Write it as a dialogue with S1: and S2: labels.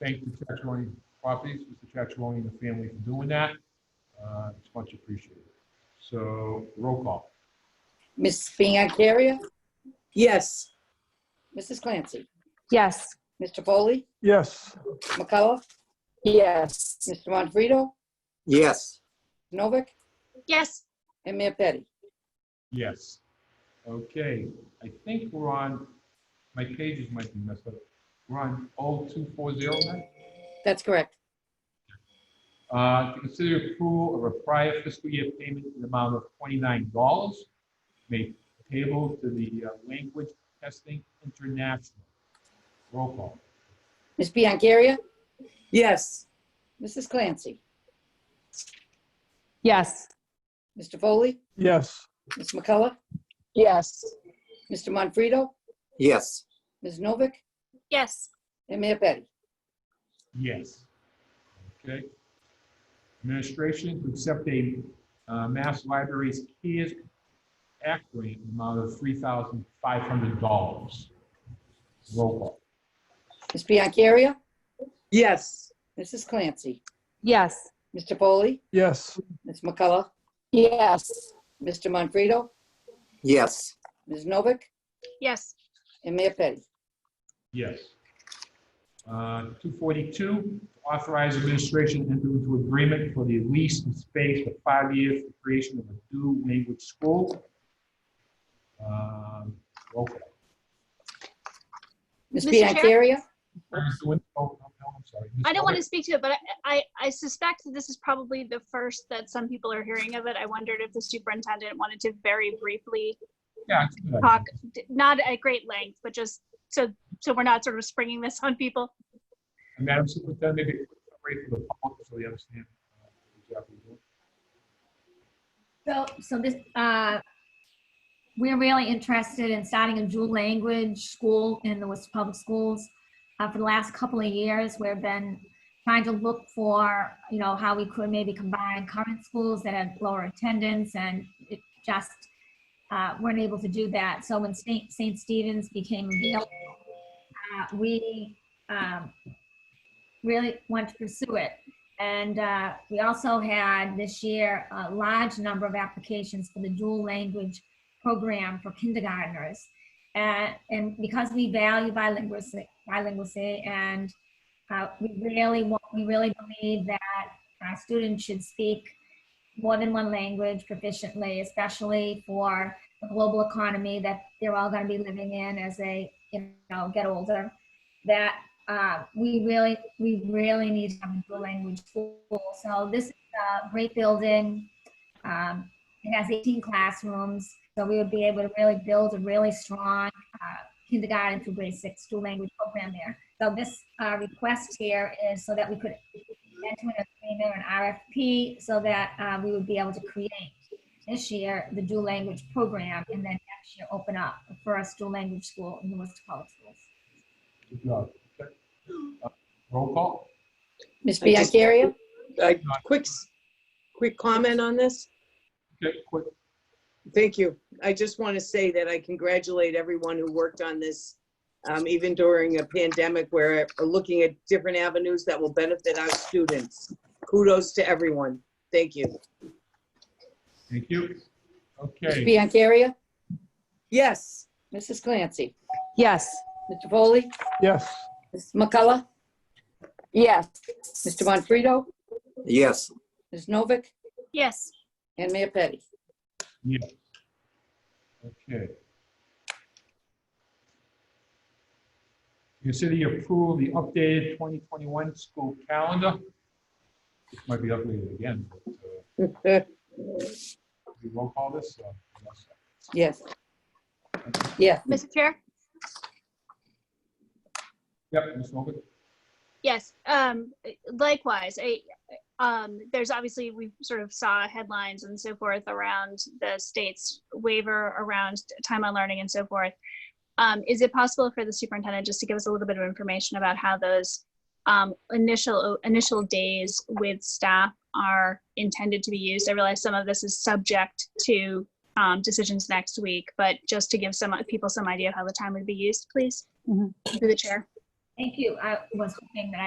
S1: thank the Chatchewan Properties, Mr. Chatchewan and the family for doing that. Uh, It's much appreciated. So roll call.
S2: Ms. Biancaria,
S3: Yes.
S2: Mrs. Clancy,
S4: Yes.
S2: Mr. Foley,
S5: yes,
S2: McCullough,
S4: Yes.
S2: Mr. Montfredo,
S3: Yes.
S2: Novick,
S6: yes,
S2: and Mayor Petty.
S1: Yes. Okay, I think we're on, my pages might be messed up. We're on 0240 now.
S2: That's correct.
S1: Uh, To consider approval of a prior fiscal year payment in the amount of $29 made payable to the uh, Language Testing International. Roll call.
S2: Ms. Biancaria,
S3: Yes.
S2: Mrs. Clancy,
S4: Yes.
S2: Mr. Foley,
S5: yes,
S2: Ms. McCullough,
S4: Yes.
S2: Mr. Montfredo,
S3: Yes.
S2: Ms. Novick,
S6: yes,
S2: and Mayor Petty.
S1: Yes. Okay. Administration to accept a uh, Mass Libraries CARES Act grant in the amount of $3,500. Roll call.
S2: Ms. Biancaria,
S3: Yes.
S2: Mrs. Clancy,
S4: Yes.
S2: Mr. Foley,
S5: yes,
S2: Ms. McCullough,
S4: Yes.
S2: Mr. Montfredo,
S3: Yes.
S2: Ms. Novick,
S6: yes,
S2: and Mayor Petty.
S1: Yes. Uh, 242, authorize administration to enter into agreement for the lease and space for five years for creation of a new language school. Um, Roll call.
S2: Ms.
S6: Mr. Chair?
S2: Biancaria,
S1: Oh, no, no, I'm sorry.
S6: I don't want to speak to it, but I, I, I suspect that this is probably the first that some people are hearing of it. I wondered if the superintendent wanted to very briefly
S1: Yeah, it's a good idea.
S6: talk, d- not at great length, but just so, so we're not sort of springing this on people.
S1: And Madam Superintendent, maybe a quick summary for the public so they understand uh, exactly what
S7: So, so this, uh, we're really interested in starting a dual language school in the Worcester Public Schools. Uh, for the last couple of years, we've been trying to look for, you know, how we could maybe combine current schools that have lower attendance and it just, uh, weren't able to do that. So when St. St. Stephen's became available, uh, we, um, really wanted to pursue it. And uh, we also had this year a large number of applications for the dual language program for kindergarteners. And, and because we value bilingualism, bilingualism and uh, we really want, we really believe that our students should speak more than one language proficiently, especially for the global economy that they're all going to be living in as they, you know, get older. That uh, we really, we really need to have a dual language school. So this is a great building. Um, it has 18 classrooms, so we would be able to really build a really strong uh, kindergarten through grade six dual language program there. So this uh, request here is so that we could enter an agreement or an RFP so that uh, we would be able to create this year the dual language program and then next year open up the first dual language school in the Worcester Public Schools.
S1: good job. Okay. Uh, Roll call?
S2: Ms.
S3: I just-
S2: Biancaria,
S3: A quick, s- quick comment on this?
S1: Okay, quick.
S3: Thank you. I just want to say that I congratulate everyone who worked on this, um, even during a pandemic where we're looking at different avenues that will benefit our students. Kudos to everyone. Thank you.
S1: Thank you.
S2: Ms.
S1: Okay,
S2: Biancaria,
S3: Yes.
S2: Mrs. Clancy,
S4: Yes.
S2: Mr. Foley,
S5: yes,
S2: Ms. McCullough,
S4: Yes.
S2: Mr. Montfredo,
S3: Yes.
S2: Ms. Novick,
S6: Yes,
S2: and Mayor Petty.
S1: okay. Consider you approve the updated 2021 school calendar. This might be updated again, but uh, we roll call this. uh, yes.
S2: Yes. Yes,
S6: Mr. Chair?
S1: Yep, Ms. Novick?
S6: Yes, um, likewise, I, um, there's obviously, we sort of saw headlines and so forth around the state's waiver around time on learning and so forth. Um, is it possible for the superintendent just to give us a little bit of information about how those um, initial, initial days with staff are intended to be used? I realize some of this is subject to, um, decisions next week, but just to give some people some idea of how the time would be used, please,
S4: Mhm.
S6: through the chair.
S7: Thank you. I was hoping that I